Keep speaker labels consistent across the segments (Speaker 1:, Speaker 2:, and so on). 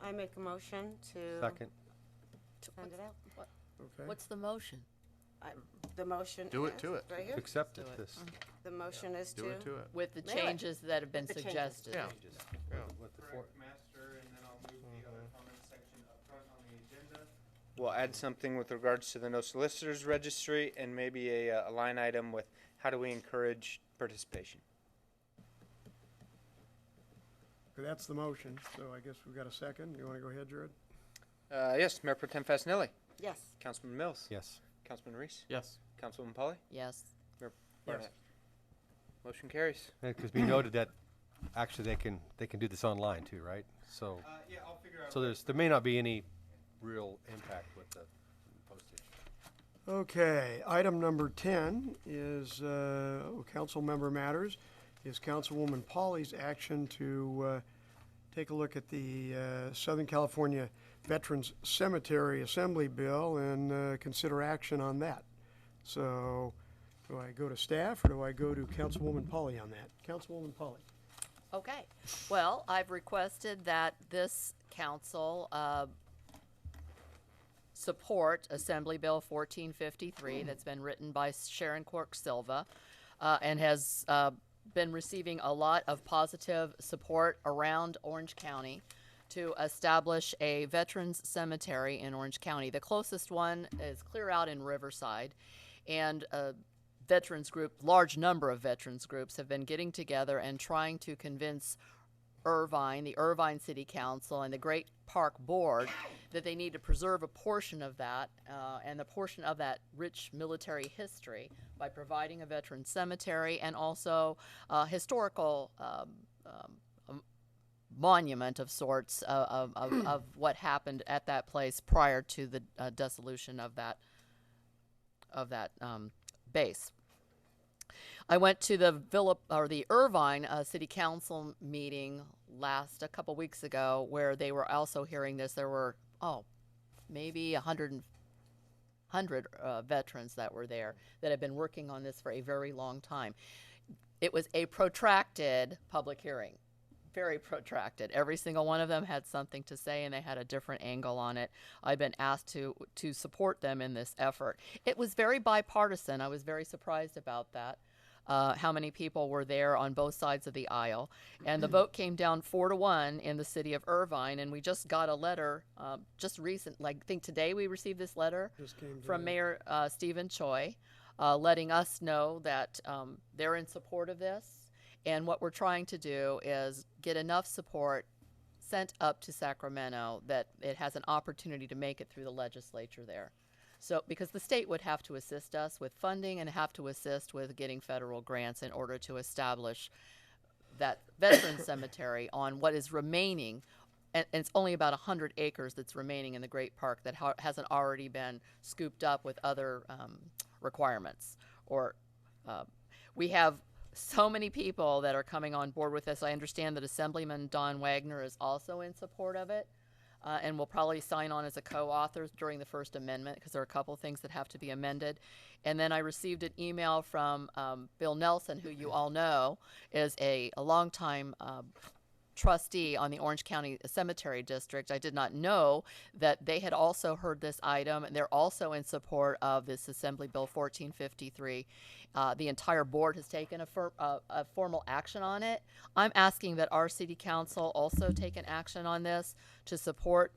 Speaker 1: I make a motion to.
Speaker 2: Second.
Speaker 3: T-
Speaker 1: Send it out.
Speaker 4: Okay.
Speaker 3: What's the motion?
Speaker 1: The motion.
Speaker 5: Do it
Speaker 1: is-
Speaker 5: to it.
Speaker 1: Right here.
Speaker 2: Accept
Speaker 3: Do
Speaker 2: it,
Speaker 3: it.
Speaker 2: this.
Speaker 1: The motion is to.
Speaker 5: Do it to it.
Speaker 3: With the
Speaker 1: Melee.
Speaker 3: changes that have been
Speaker 1: With the changes.
Speaker 3: suggested?
Speaker 5: Yeah.
Speaker 2: Just
Speaker 5: Yeah.
Speaker 2: with the four-
Speaker 6: Correct, master, and then I'll move the other comment section up front on the agenda. Mm-hmm. We'll add something with regards to the no solicitors registry and maybe a, uh, a line item with how do we encourage participation?
Speaker 4: That's the motion, so I guess we've got a second. You want to go ahead, Jared?
Speaker 6: Uh, yes, Mayor Pro Tem Fasenelli,
Speaker 1: Yes.
Speaker 6: Councilman Mills,
Speaker 2: Yes.
Speaker 6: Councilman Reese,
Speaker 5: Yes.
Speaker 6: Councilman Polly,
Speaker 3: Yes.
Speaker 6: Barnett. Motion carries.
Speaker 2: Because we noted that, actually, they can, they can do this online too, right? So,
Speaker 6: Uh, yeah, I'll figure
Speaker 2: so there's, there may not be any real impact with the postage.
Speaker 4: Okay, item number 10 is, uh, oh, council member matters, is Councilwoman Polly's action to uh, take a look at the uh, Southern California Veterans Cemetery Assembly Bill and uh, consider action on that. So, do I go to staff or do I go to Councilwoman Polly on that? Councilwoman Polly.
Speaker 3: Okay. Well, I've requested that this council uh, support Assembly Bill 1453 that's been written by Sharon Quirk Silva uh, and has uh, been receiving a lot of positive support around Orange County to establish a veterans cemetery in Orange County. The closest one is clear out in Riverside. And uh, veterans group, large number of veterans groups have been getting together and trying to convince Irvine, the Irvine City Council, and the Great Park Board that they need to preserve a portion of that uh, and the portion of that rich military history by providing a veteran cemetery and also uh, historical um, um, monument of sorts uh, of, of, of, of what happened at that place prior to the uh, dissolution of that of that um, base. I went to the Villa or the Irvine uh, City Council meeting last a couple weeks ago, where they were also hearing this. There were oh, maybe a hundred and hundred uh, veterans that were there that had been working on this for a very long time. It was a protracted public hearing, very protracted. Every single one of them had something to say, and they had a different angle on it. I've been asked to to support them in this effort. It was very bipartisan. I was very surprised about that. Uh, how many people were there on both sides of the aisle? And the vote came down four to one in the city of Irvine. And we just got a letter um, just recent, like I think today we received this letter
Speaker 4: Just came
Speaker 3: from
Speaker 4: today.
Speaker 3: Mayor uh, Stephen Choi, uh, letting us know that um, they're in support of this. And what we're trying to do is get enough support sent up to Sacramento that it has an opportunity to make it through the legislature there. So, because the state would have to assist us with funding and have to assist with getting federal grants in order to establish that veteran cemetery on what is remaining, and, and it's only about 100 acres that's remaining in the Great Park that ha- hasn't already been scooped up with other um, requirements. Or uh, we have so many people that are coming on board with this. I understand that Assemblyman Don Wagner is also in support of it. Uh, and will probably sign on as a co-author during the First Amendment because there are a couple things that have to be amended. And then I received an email from um, Bill Nelson, who you all know is a, a longtime um, trustee on the Orange County Cemetery District. I did not know that they had also heard this item, and they're also in support of this Assembly Bill 1453. Uh, the entire board has taken a, fir- uh, a formal action on it. I'm asking that our city council also take an action on this to support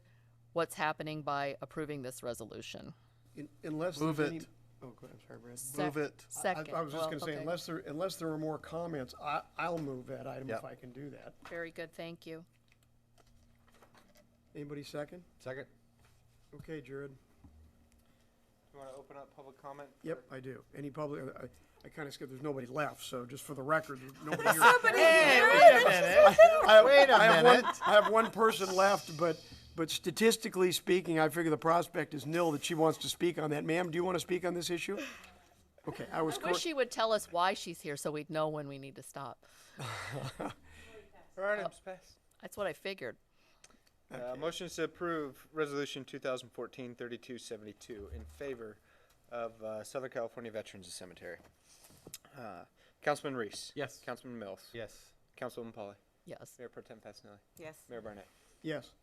Speaker 3: what's happening by approving this resolution.
Speaker 4: In- Unless
Speaker 5: Move
Speaker 4: there's any-
Speaker 5: it.
Speaker 4: Oh, go ahead, I'm sorry, Brad.
Speaker 5: Move it.
Speaker 4: I- I-
Speaker 3: Second.
Speaker 4: I was just
Speaker 3: Well,
Speaker 4: gonna say,
Speaker 3: okay.
Speaker 4: unless there, unless there are more comments, I, I'll move that item if
Speaker 2: Yep.
Speaker 4: I can do that.
Speaker 3: Very good, thank you.
Speaker 4: Anybody second?
Speaker 2: Second?
Speaker 4: Okay, Jared.
Speaker 6: You wanna open up public comment?
Speaker 4: Yep, I do. Any public, I, I kinda skipped, there's nobody left, so just for the record, there's nobody here. I-
Speaker 5: Wait a
Speaker 4: I have one-
Speaker 5: minute.
Speaker 4: I have one person left, but, but statistically speaking, I figure the prospect is nil that she wants to speak on that. Ma'am, do you wanna speak on this issue? Okay, I was
Speaker 3: Wish
Speaker 4: correct.
Speaker 3: she would tell us why she's here so we'd know when we need to stop.
Speaker 6: Alright, it's passed.
Speaker 3: That's what I figured.
Speaker 6: Uh, motion is to approve resolution 2014 3272 in favor of uh, Southern California Veterans Cemetery. Uh, Councilman Reese.
Speaker 5: Yes.
Speaker 6: Councilman Mills.
Speaker 2: Yes.
Speaker 6: Councilman Polly.
Speaker 3: Yes.
Speaker 6: Mayor Pro Tem Fasenelli.
Speaker 1: Yes.
Speaker 6: Mayor Barnett.
Speaker 4: Yes.